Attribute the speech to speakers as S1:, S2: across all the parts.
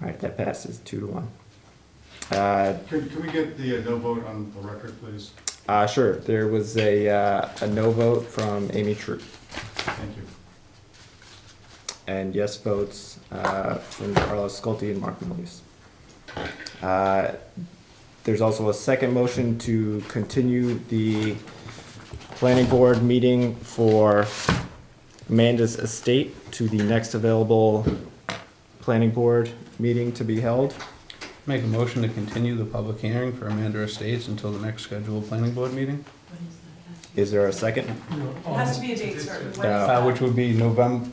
S1: that passes two to one. Uh,
S2: Can, can we get the uh, no vote on the record, please?
S1: uh, sure, there was a, uh, a no vote from Amy True
S2: Thank you.
S1: and yes votes, uh, from Carlos Sculte and Mark Milius. Uh, There's also a second motion to continue the planning board meeting for Amanda's estate to the next available planning board meeting to be held.
S3: Make a motion to continue the public hearing for Amanda Estates until the next scheduled planning board meeting,
S1: Is there a second?
S4: It has to be a date certain. When is
S1: Yeah.
S3: uh,
S4: that?
S3: which would be November,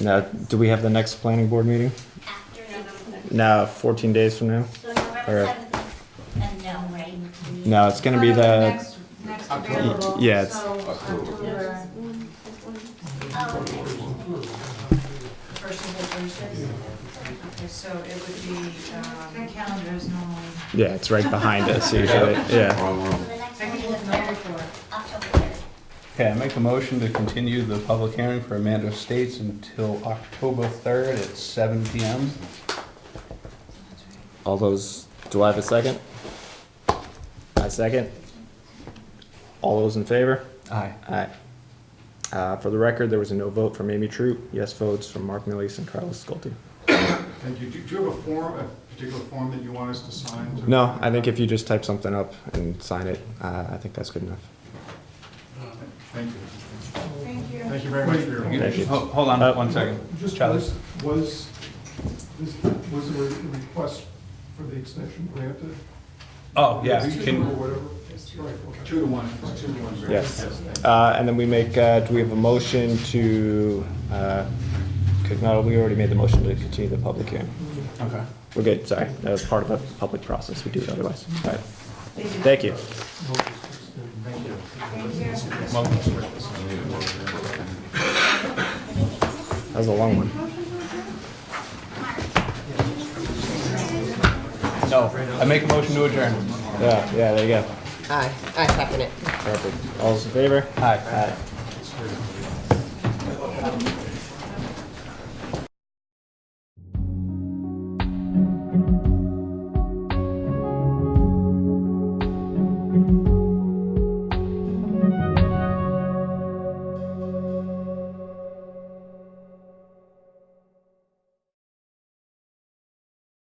S1: Now, do we have the next planning board meeting?
S5: After November,
S1: No, 14 days from now?
S5: so
S1: Or-
S5: November seventh, and no, right? We-
S1: No, it's gonna be the,
S6: Next, next
S7: October.
S6: available,
S1: Yeah, it's-
S6: so October,
S5: Oh, okay.
S4: First and Thursdays. Okay, so it would be,
S6: the
S4: um,
S6: calendar is normally.
S1: yeah, it's right behind us usually, yeah.
S5: So the next
S6: I
S5: one
S6: can
S5: is
S6: look very for it.
S5: October third.
S3: okay, I make a motion to continue the public hearing for Amanda Estates until October third at seven P M.
S1: All those, do I have a second? I second. All those in favor?
S3: Aye.
S1: Aye. Uh, for the record, there was a no vote from Amy Troop, yes votes from Mark Millius and Carlos Sculte.
S2: Thank you. Do do you have a form, a particular form that you want us to sign? to-
S1: No, I think if you just type something up and sign it, uh, I think that's good enough.
S2: Thank you.
S6: Thank you.
S2: Thank you very much for your.
S1: Thank you.
S3: Ho- Hold on
S1: Uh,
S3: one second.
S8: Just
S3: Charlie.
S8: was, was, this- was there a request for the extension granted?
S3: Oh, yeah,
S8: Two
S3: can,
S8: Or whatever? Right, okay.
S2: Two to one, it's two to one. Barry.
S1: Yes.
S2: thank you.
S1: Uh, and then we make, uh, do we have a motion to, uh, could not, we already made the motion to continue the public hearing.
S3: okay.
S1: We're good, sorry, that was part of the public process, we do it otherwise. All right, thank you. That was a long one.
S3: No, I make a motion to adjourn.
S1: Yeah, yeah, there you go.
S7: Aye, I second it.
S1: Perfect. All those in favor?
S3: Aye.
S1: Aye.